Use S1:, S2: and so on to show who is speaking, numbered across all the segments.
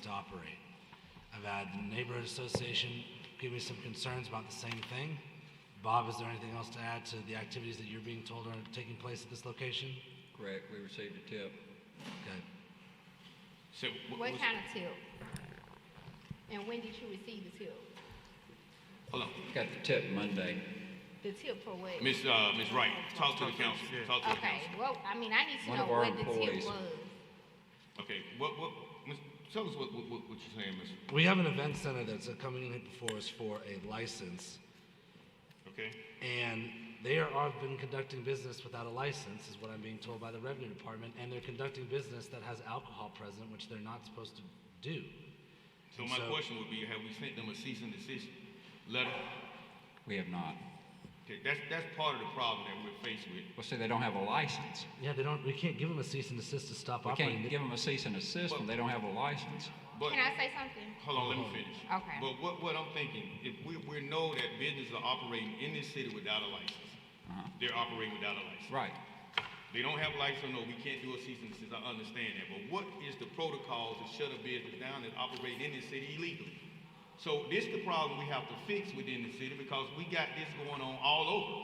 S1: to operate. I've had the neighborhood association give me some concerns about the same thing. Bob, is there anything else to add to the activities that you're being told are taking place at this location?
S2: Correct, we received a tip.
S1: Okay.
S3: So what
S4: What
S3: was-
S4: kind of tip? And when did you receive the tip?
S3: Hold on,
S2: Got the tip Monday.
S4: The tip for what?
S3: Miss uh, Miss Wright, talk to the council. Talk to the
S4: Okay,
S3: council.
S4: well, I mean, I need to
S2: One
S4: know
S2: of our
S4: what the tip
S2: employees.
S4: was.
S3: Okay, what what? Miss, tell us what what, what what you're saying, Miss.
S1: We have an event center that's uh, coming in before us for a license,
S3: Okay.
S1: and they are, have been conducting business without a license, is what I'm being told by the revenue department, and they're conducting business that has alcohol present, which they're not supposed to do.
S3: So my
S1: So-
S3: question would be, have we sent them a cease and desist letter?
S2: We have not.
S3: Okay, that's that's part of the problem that we're faced with.
S2: Well, see, they don't have a license.
S1: Yeah, they don't, we can't give them a cease and desist to stop
S2: We
S1: operating.
S2: can't give them a cease and desist when they don't have a license.
S3: But
S4: Can I say something?
S3: hold on, let me finish.
S4: Okay.
S3: But what what I'm thinking, if we we know that businesses are operating in this city without a license, they're operating without a license.
S2: Right.
S3: They don't have lights on, no, we can't do a cease and desist, I understand that, but what is the protocol to shut a business down and operate in this city illegally? So this the problem we have to fix within the city, because we got this going on all over.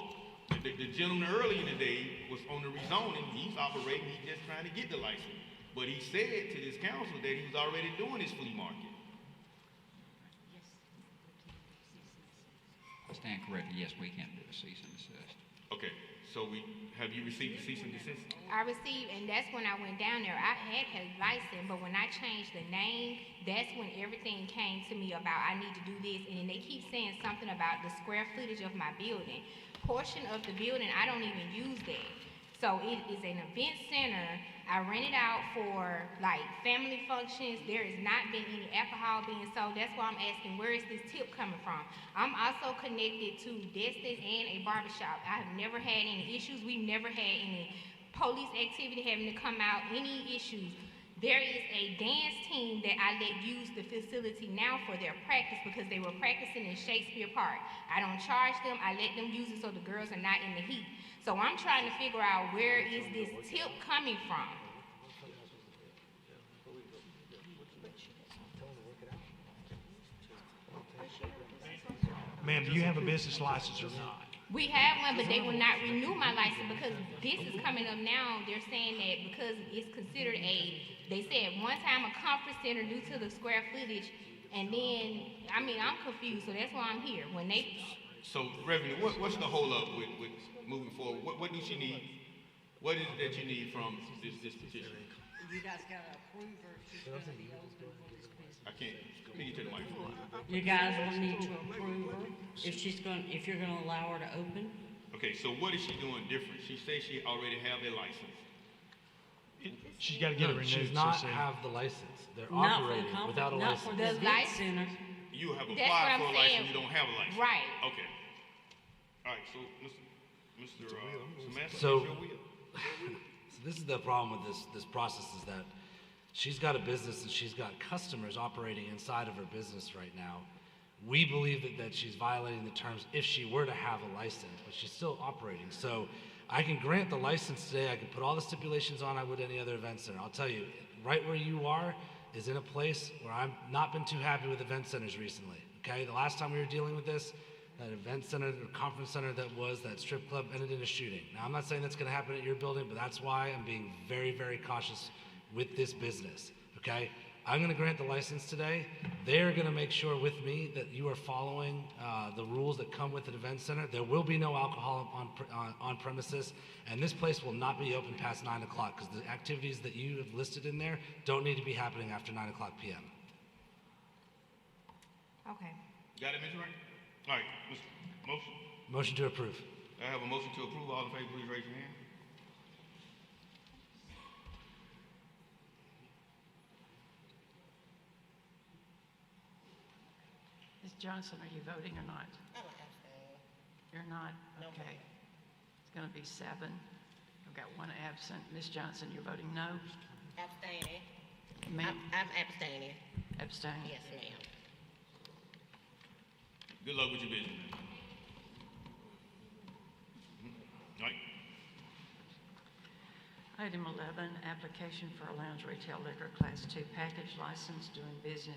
S3: The, the gentleman early in the day was on the rezoning, he's operating, he's just trying to get the license. But he said to this council that he was already doing his flea market.
S2: I stand corrected. Yes, we can do a cease and desist.
S3: Okay, so we, have you received the cease and desist?
S4: I received, and that's when I went down there. I had his license, but when I changed the name, that's when everything came to me about I need to do this. And then they keep saying something about the square footage of my building. Portion of the building, I don't even use that. So it is an event center. I rent it out for like family functions. There has not been any alcohol being sold. That's why I'm asking where is this tip coming from? I'm also connected to Destin and a barbershop. I have never had any issues. We've never had any police activity having to come out, any issues. There is a dance team that I let use the facility now for their practice because they were practicing in Shakespeare Park. I don't charge them, I let them use it so the girls are not in the heat. So I'm trying to figure out where is this tip coming from?
S5: Ma'am, do you have a business license or not?
S4: We have one, but they will not renew my license because this is coming up now. They're saying that because it's considered a, they said one time a conference center due to the square footage. And then, I mean, I'm confused, so that's why I'm here. When they,
S3: So Reverend, what, what's the holdup with, with moving forward? What, what do she need? What is it that you need from this, this petition?
S6: You guys gotta approve her, she's gonna be open for this business.
S3: I can't, let me get to the microphone.
S6: You guys will need to approve her, if she's gonna, if you're gonna allow her to open.
S3: Okay, so what is she doing different? She says she already have a license.
S5: She's gotta get
S1: No,
S5: it renewed.
S1: she does
S5: so
S1: not
S5: soon.
S1: Oh, have the license. They're
S6: Not for the
S1: operating
S6: conference-
S1: without a
S6: not
S1: license.
S6: for the
S4: The
S6: event
S4: lic-
S6: center.
S3: You have
S4: That's what
S3: applied
S4: I'm
S3: for a
S4: saying.
S3: license, you don't have a license.
S4: Right.
S3: Okay. All right, so, Mr. Mr. uh, Samantha,
S1: So-
S3: it's your will.
S1: So this is the problem with this this process is that she's got a business and she's got customers operating inside of her business right now. We believe that, that she's violating the terms if she were to have a license, but she's still operating. So I can grant the license today. I can put all the stipulations on I would any other event center. I'll tell you, right where you are is in a place where I've not been too happy with event centers recently. Okay, the last time we were dealing with this, that event center or conference center that was that strip club ended in a shooting. Now, I'm not saying that's going to happen at your building, but that's why I'm being very, very cautious with this business. Okay? I'm going to grant the license today. They're going to make sure with me that you are following uh, the rules that come with an event center. There will be no alcohol on, pre- on, on premises, and this place will not be open past 9 o'clock because the activities that you have listed in there don't need to be happening after 9 o'clock p.m.
S4: okay.
S3: Got it, Ms. Wright? All right, Mr. Motion.
S1: Motion to approve.
S3: I have a motion to approve. All in favor, please raise your hand.
S7: Ms. Johnson, are you voting or not?
S6: Oh,
S7: You're not? Okay. It's going to be seven. I've got one absent. Ms. Johnson, you're voting no?
S6: Abstaining.
S7: Ma'am,
S6: I'm abstaining,
S7: abstain.
S6: ma'am.
S3: Good luck with your business. man. Mm-hmm. All right.
S7: Item 11, application for a lounge retail liquor class two package license doing business